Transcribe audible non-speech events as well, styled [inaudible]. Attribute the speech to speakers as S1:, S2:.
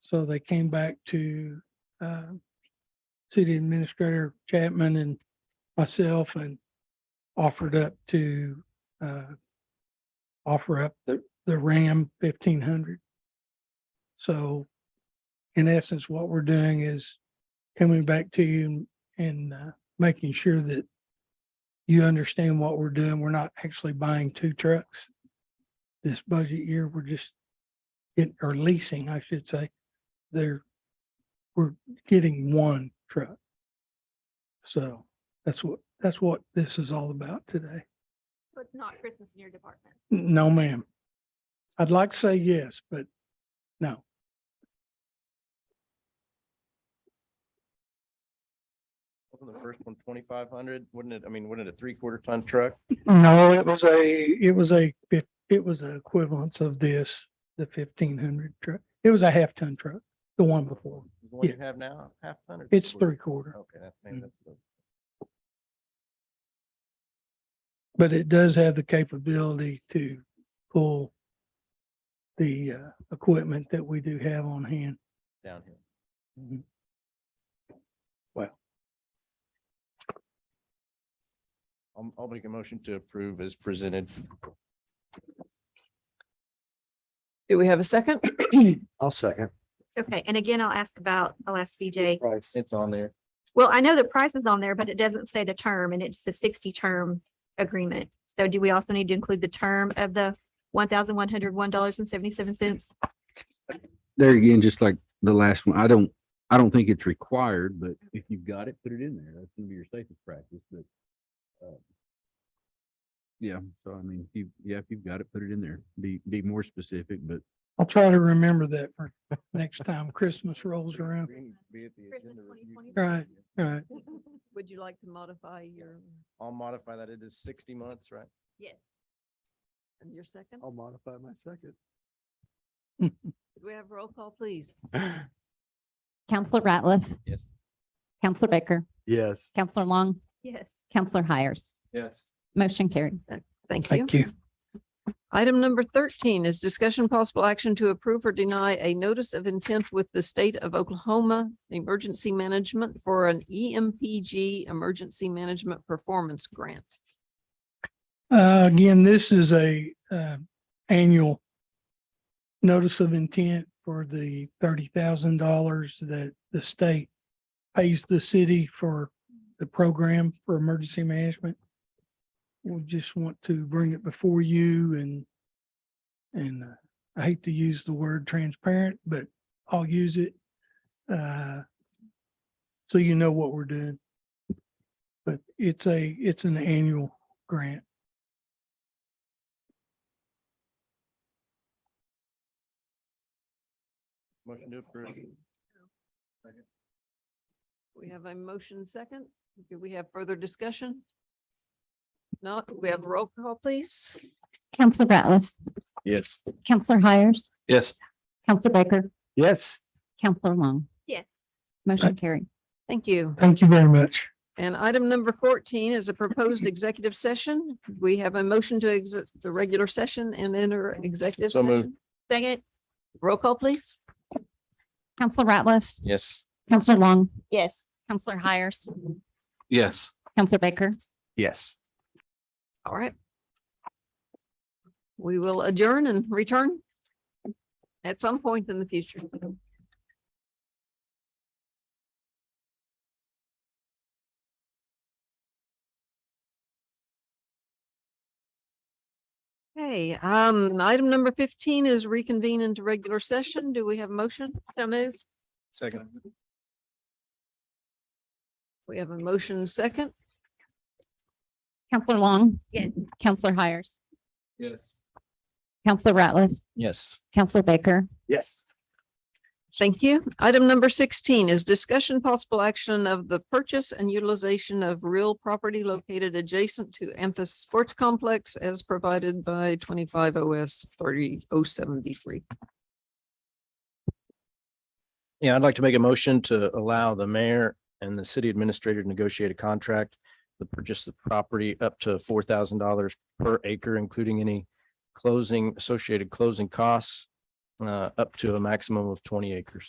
S1: So they came back to uh, City Administrator Chapman and myself and offered up to uh, offer up the, the Ram fifteen hundred. So in essence, what we're doing is coming back to you and uh, making sure that you understand what we're doing. We're not actually buying two trucks this budget year. We're just getting, or leasing, I should say. They're, we're getting one truck. So that's what, that's what this is all about today.
S2: So it's not Christmas in your department.
S1: No, ma'am. I'd like to say yes, but no.
S3: Wasn't the first one twenty-five hundred? Wouldn't it, I mean, wouldn't it a three-quarter ton truck?
S1: No, it was a, it was a, fif- it was an equivalence of this, the fifteen hundred truck. It was a half ton truck, the one before.
S3: Is The one you
S1: Yeah.
S3: have now, half ton? or
S1: It's
S3: three-quarter?
S1: three quarter.
S3: Okay, that's, maybe
S1: Mhm.
S3: that's, what-
S1: But it does have the capability to pull the uh, equipment that we do have on hand.
S3: down here.
S4: Mm-hmm.
S3: I'll, I'll make a motion to approve as presented.
S5: Do we have a second?
S4: I'll second.
S2: Okay, and again, I'll ask about, I'll ask BJ.
S4: Price.
S3: It's on there.
S2: Well, I know the price is on there, but it doesn't say the term and it's the sixty term agreement. So do we also need to include the term of the one thousand one hundred one dollars and seventy-seven cents?
S6: there again, just like the last one, I don't, I don't think it's required, but if you've got it, put it in there. That's gonna be your safest practice, but. um, Yeah, so I mean, if you, yeah, if you've got it, put it in there. Be, be more specific, but
S1: I'll try to remember that for next time Christmas rolls around.
S3: Be at the
S2: Christmas
S3: agenda review
S2: 2020.
S1: Right.
S3: committee.
S1: All right.
S5: [coughs] Would you like to modify your,
S3: I'll modify that. It is sixty months, right?
S5: your second?
S4: I'll modify my second.
S5: Could we have roll call, please?
S7: Counselor Ratliff,
S3: Yes.
S7: Counselor Baker,
S4: Yes.
S7: Counselor Long,
S2: Yes.
S7: Counselor Hires.
S3: Yes.
S7: Motion carried.
S5: Thank you.
S1: Thank you.
S5: Item number thirteen is discussion possible action to approve or deny a notice of intent with the state of Oklahoma Emergency Management for an E EMPG Emergency Management Performance Grant.
S1: Uh, again, this is a, uh, annual notice of intent for the thirty thousand dollars that the state pays the city for the program for emergency management. We just want to bring it before you and, and uh, I hate to use the word transparent, but I'll use it. Uh, so you know what we're doing. But it's a, it's an annual grant.
S3: Motion to approve.
S5: We have a motion second. Do we have further discussion? Not, we have roll call, please.
S7: Counselor Ratliff,
S3: Yes.
S7: Counselor Hires,
S3: Yes.
S7: Counselor Baker,
S4: Yes.
S7: Counselor Long.
S2: Yes.
S7: Motion carried.
S5: Thank you.
S1: Thank you very much.
S5: And item number fourteen is a proposed executive session. We have a motion to exit the regular session and enter executive.
S3: So moved.
S5: session.
S2: Second?
S5: Roll call, please.
S7: Counselor Ratliff,
S3: Yes.
S7: Counselor Long,
S2: Yes.
S7: Counselor Hires,
S6: yes.
S7: Counselor Baker.
S4: Yes.
S5: All right. We will adjourn and return at some point in the future. Okay. um, item number fifteen is reconvene into regular session. Do we have a motion?
S2: So moved?
S3: Second.
S5: We have a motion second.
S7: Counselor Long.
S2: Yes.
S7: Counselor Hires,
S3: Yes.
S7: Counselor Ratliff,
S3: Yes.
S7: Counselor Baker,
S4: Yes.
S5: Thank you. Item number sixteen is discussion possible action of the purchase and utilization of real property located adjacent to Anthus Sports Complex as provided by twenty-five OS thirty oh seventy-three.
S3: Yeah, I'd like to make a motion to allow the mayor and the city administrator to negotiate a contract to purchase the property up to four thousand dollars per acre, including any closing, associated closing costs, uh, up to a maximum of twenty acres.